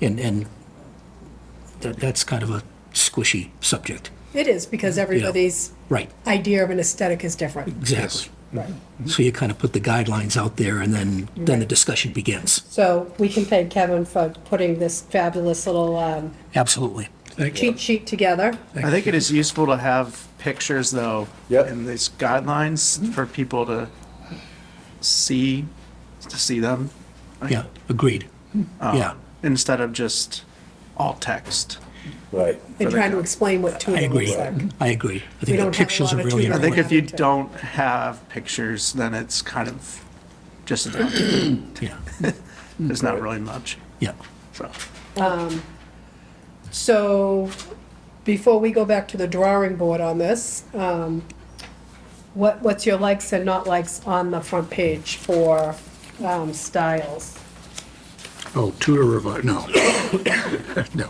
And, and that, that's kind of a squishy subject. It is, because everybody's Right, idea of an aesthetic is different. exactly. Right. So you kind of put the guidelines out there and then, then the discussion begins. So we can thank Kevin for putting this fabulous little um, Absolutely. cheat sheet together. I think it is useful to have pictures though. Yep. In these guidelines for people to see, to see them. like, Yeah, agreed. Yeah, Instead of just all text. Right. And trying to explain what I tuna agree. looks like. I agree. I We think the don't have a pictures lot are of really tuna. I think important. if you Right. don't have pictures, then it's kind of just, a document. Yeah, there's not really much. yeah. So, So before we go back to the drawing board on this, um, what, what's your likes and not likes on the front page for um, styles? Oh, Tudor Revival, no. No.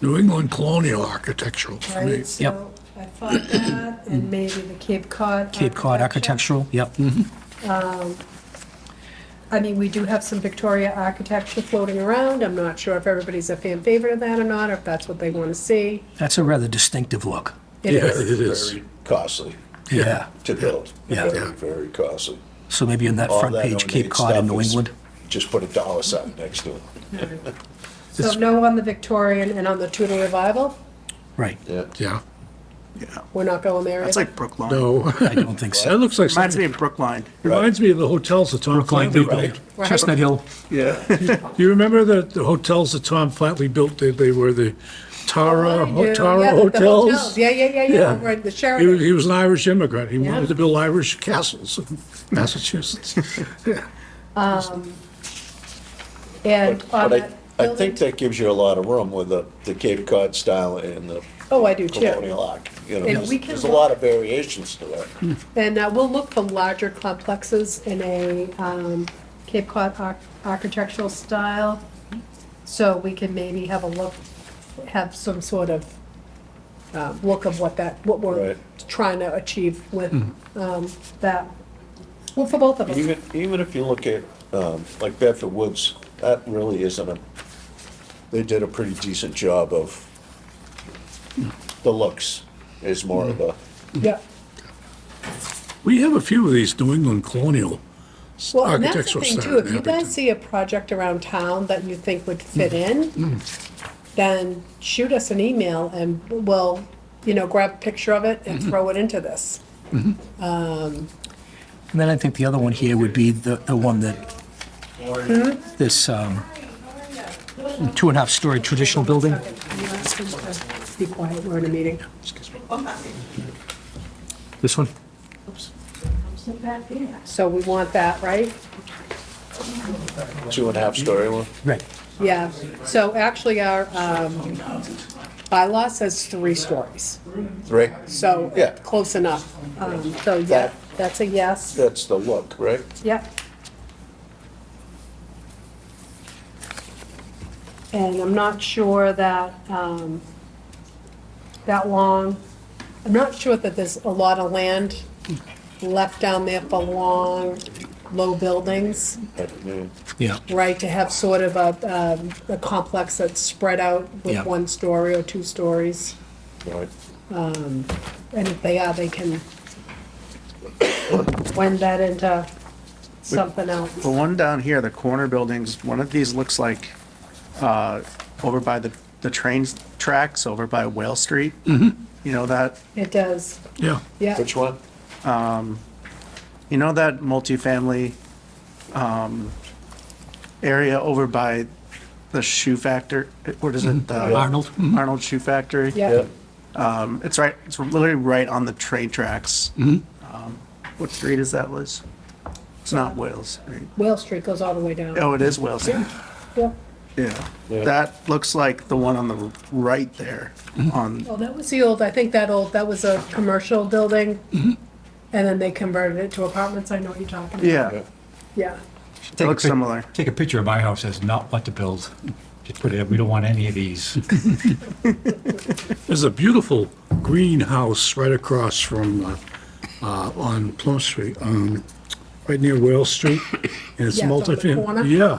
New England colonial architectural for me. Right, so I thought that, and maybe the Cape Cod. Mm. Cape Cod architectural, yep. I mean, we do have some Victoria architecture floating around. I'm not sure if everybody's a fan favorite of that or not, or if that's what they want to see. That's a rather distinctive look. It Yeah, is. it is. Very costly Yeah. to build. Yeah. Very, very costly. So maybe on that All front that page, Cape ornate Cod and stuff New is- England. Just put a dollar sign next to it. So no on the Victorian and on the Tudor revival? Right. Yeah. Yeah, yeah, We're not going there that's either? like Brookline. no, I don't think so. that looks like, Reminds me something- of Brookline. reminds me of the hotels that Tom Brookline Flatley built. Depot, Chestnut Hill. Yeah. Do you remember the, the hotels that Tom Flatley built? They, they were the Tara, Yeah, Ho- Tara Oh, yeah, the- the uh, Hotels? Yeah, yeah, yeah, yeah, Yeah. over at the He was, Sheridan. he was an Irish immigrant. He Yeah. wanted to build Irish castles in Massachusetts. Yeah. And on But I, that I think building, that gives you a lot of room with the, the Cape Cod style and the oh, I do too. colonial arc. You know, And there's, we can there's a look- lot of variations to it. And uh, we'll look for larger complexes in a um, Cape Cod arch- architectural style. So we can maybe have a look, have some sort of uh, look of what that, what we're Right. trying to achieve with um, that. Well, for both of us. Even, even if you look at, um, like Bedford Woods, that really isn't a, they did a pretty decent job of, Hmm. the looks is more of Hmm. a, Yeah. We have a few of these New England colonial s- Well, and that's the architectural thing styles. too, if in you guys Abington. see a project around town that you think would fit in, then shoot us an email and we'll, you know, grab a picture of it and throw it into this. And then I think the other one here would be the, the one that, this, um, two and a half story traditional building. Be quiet, we're in a meeting. This one? So we want that, right? two and a half story one. Right. Yeah, so actually our um, bylaw says three stories, Right. so Yeah. close enough. Um, So yeah, That- that's a yes. That's the look, right? Yep. And I'm not sure that, um, that long, I'm not sure that there's a lot of land left down there for long, low buildings, But, yeah. Yeah, right, to have sort of a, um, a complex that's spread out Yeah. with one story or two stories. Right. And if they are, they can blend that into something else. The one down here, the corner buildings, one of these looks like, uh, over by the, the train tracks, over by Whale Street. You know that, It does, Yeah, yeah. Which one? you know that multifamily, um, area over by the shoe factor, what is it? The- Arnold. Arnold Shoe Factory. Yeah, Um, it's right, it's literally right on the train tracks. Um, What street is that, Liz? It's not Wales, right? Whale Street goes all the way down. Oh, it is Wales. Yeah. Yeah, Yeah. that looks like the one on the right there on, Well, that was the old, I think that old, that was a commercial building. And then they converted it to apartments. I know what you're talking about. yeah, Yeah. it Take a looks pic- similar. Take a picture of my house as not what to build. Just put it, up, we don't want any of these. there's a beautiful greenhouse right across from, uh, uh, on Plum Street, um, right near Whale Street, and it's Yeah, it's on the multifamily. corner. Yeah,